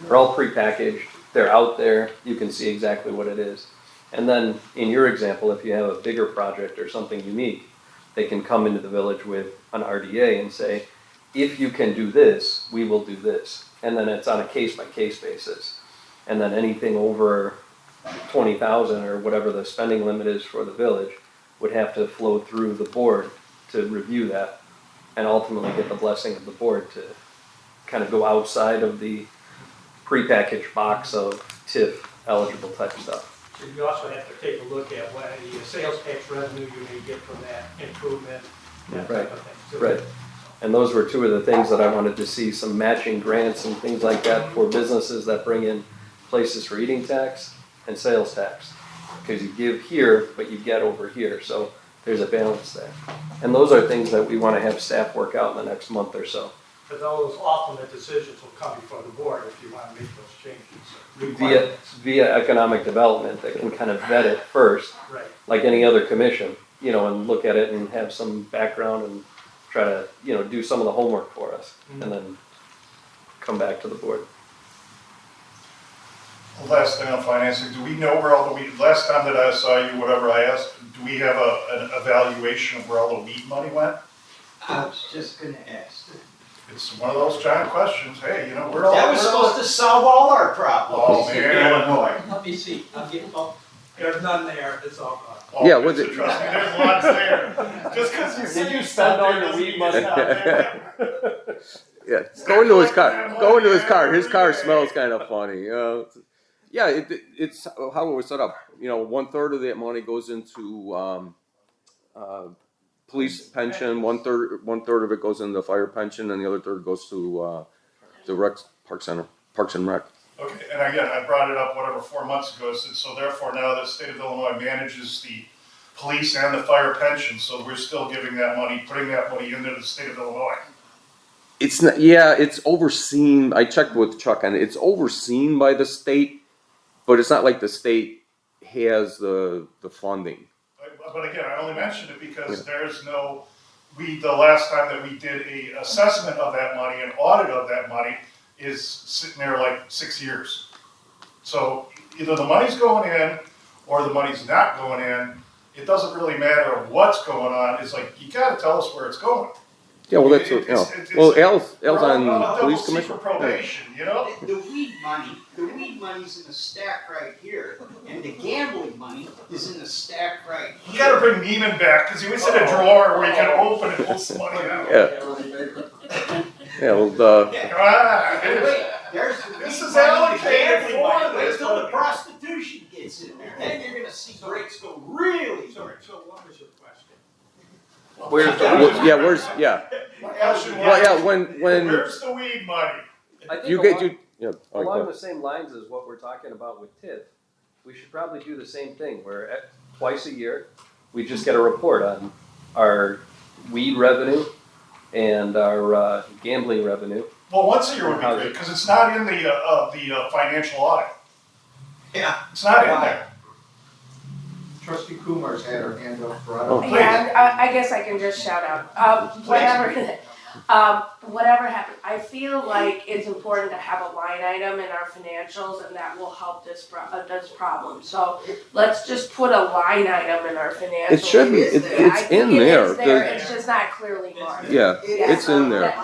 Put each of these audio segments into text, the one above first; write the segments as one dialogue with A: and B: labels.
A: They're all prepackaged, they're out there, you can see exactly what it is. And then, in your example, if you have a bigger project or something unique, they can come into the village with an RDA and say, if you can do this, we will do this. And then it's on a case-by-case basis. And then anything over twenty thousand or whatever the spending limit is for the village would have to flow through the board to review that and ultimately get the blessing of the board to kind of go outside of the prepackaged box of TIF eligible type stuff.
B: So you also have to take a look at what the sales tax revenue you may get from that improvement, that type of thing. So-
A: Right. And those were two of the things that I wanted to see, some matching grants and things like that for businesses that bring in places for eating tax and sales tax. Because you give here, but you get over here, so there's a balance there. And those are things that we want to have staff work out in the next month or so.
B: But those ultimate decisions will come before the board if you want to make those changes.
A: Via,
B: Requirements.
A: via economic development that can kind of vet it first
B: Right.
A: like any other commission, you know, and look at it and have some background and try to, you know, do some of the homework for us
C: Mm-hmm.
A: and then come back to the board.
D: The Last thing on financing, do we know where all the weed, last time that I saw you, whatever I asked, do we have a, an evaluation of where all the weed money went?
E: I was just gonna ask.
D: It's one of those giant questions, hey, you know, where all?
E: That was supposed to solve all our problems
D: Oh,
E: in
D: man.
E: Illinois. Let me see, I'll get, oh,
B: There's none there, it's all gone.
D: Oh,
C: Yeah, was
D: it's-
C: it-
D: Trust me, there's lots there, just because you said you spent all your weed money out there.
C: Yeah, go into his car. Go into his car. His car smells kind of funny. You know? Yeah, it, it- it's how it was set up. You know, one third of that money goes into um, uh, police pension. One third, one third of it goes into fire pension, and the other third goes to uh, the rec park center, parks and rec.
D: Okay, and again, I brought it up whatever, four months ago, I said, so therefore now the state of Illinois manages the police and the fire pension, so we're still giving that money, putting that money into the state of Illinois.
C: It's not, yeah, it's overseen. I checked with Chuck on it. It's overseen by the state, but it's not like the state has the the funding.
D: But- But again, I only mentioned it because there is no, we, the last time that we did a assessment of that money, an audit of that money, is sitting there like six years. So either the money's going in or the money's not going in. It doesn't really matter what's going on. It's like, you gotta tell us where it's going.
C: Yeah, well, that's
D: It-
C: what,
D: it-
C: you know.
D: it's- it's-
C: well, Al's, Al's
D: We're on
C: on
D: double
C: police
D: secret
C: commission. Yeah.
D: Probation, you know?
E: the weed money, the weed money's in the stack right here, and the gambling money is in the stack right
D: You gotta bring Neiman back, cause he was in a drawer where you can open and pull some money out.
C: Yeah,
E: here.
C: yeah, well, uh, the,
E: Yeah.
D: Ah,
E: And Wait, there's the weed
D: This is
E: money, the
D: allocated
E: gambling
D: for
E: money, wait
D: this.
E: till the prostitution gets in there, then you're gonna see rates go really.
B: Sorry, so what was your question?
A: Where's the
C: well, yeah, where's, yeah, well, yeah, when, when
D: Where's the weed money?
C: you get, you, yeah, all right, go
A: Along
C: ahead.
A: the same lines as what we're talking about with TIF, we should probably do the same thing, where at, twice a year, we just get a report on our weed revenue and our, uh, gambling revenue.
D: Well, once a year would be great, because it's not in the, uh, uh, the uh, financial audit.
E: Yeah.
D: It's not in there.
E: Trustee Kumar's had her hand up for.
C: Oh.
F: Yeah, I, I guess I can just shout out, um, whatever, um, whatever happened, I feel like it's important to have a line item in our financials and that will help this pro- uh, this problem, so let's just put a line item in our financials.
C: It shouldn't,
E: is
C: it,
E: there.
F: I
C: it's
F: think
C: in
F: it
C: there,
F: is there,
C: The-
F: it's just not clearly marked.
C: yeah, it's in there.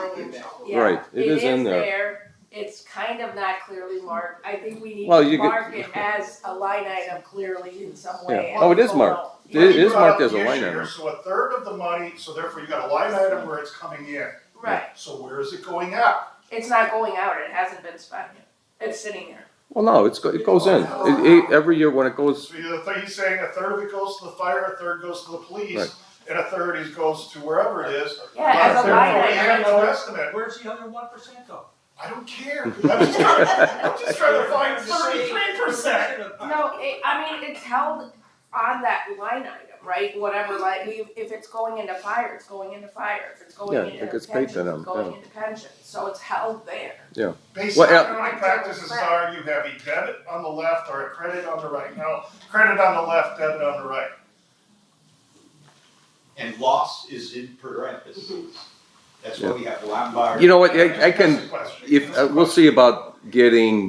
F: Yeah,
C: Right, it is in there.
F: It's kind of not clearly marked, I think we need
C: Well,
F: to
C: you could-
F: mark it as a line item clearly in some way.
C: Yeah. Oh, it is
F: Well,
C: marked.
F: yeah.
C: It is
D: You brought up
C: marked as
D: the
C: a line
D: issue here,
C: item.
D: So a third of the money, so therefore you got a line item where it's coming in.
F: Right,
D: So where is it going out?
F: It's not going out, it hasn't been spent yet. It's sitting there.
C: Well, no, it's, go- it goes in. It, it, every year when it goes,
D: So the thing he's saying, a third of it goes to the fire, a third goes to the
C: Right.
D: police, and a third is goes to wherever it is.
F: Yeah,
D: But
F: as a
D: therefore,
F: line
D: we have
F: item.
D: no estimate.
B: Where's the other one percent though?
D: I don't care. I'm just trying, I'm just trying to find thirty-three percent.
F: No, it, I mean, it's held on that line item, right? Whatever, like, we, if it's going into fire, it's going into fire. If it's going
C: Yeah,
F: into
C: it gets paid to
F: pensions,
C: them,
F: it's going
C: yeah.
F: into pensions. So it's held there.
D: Based
C: Well,
D: on
C: yeah.
D: economic practices are, you have a debit on the left or a credit on the right. Now, credit on the left, debit on the right.
E: And loss is in parentheses. That's why we have Lombard.
C: you know what, I, I can, uh,
D: That's the question.
C: if, uh, we'll see about getting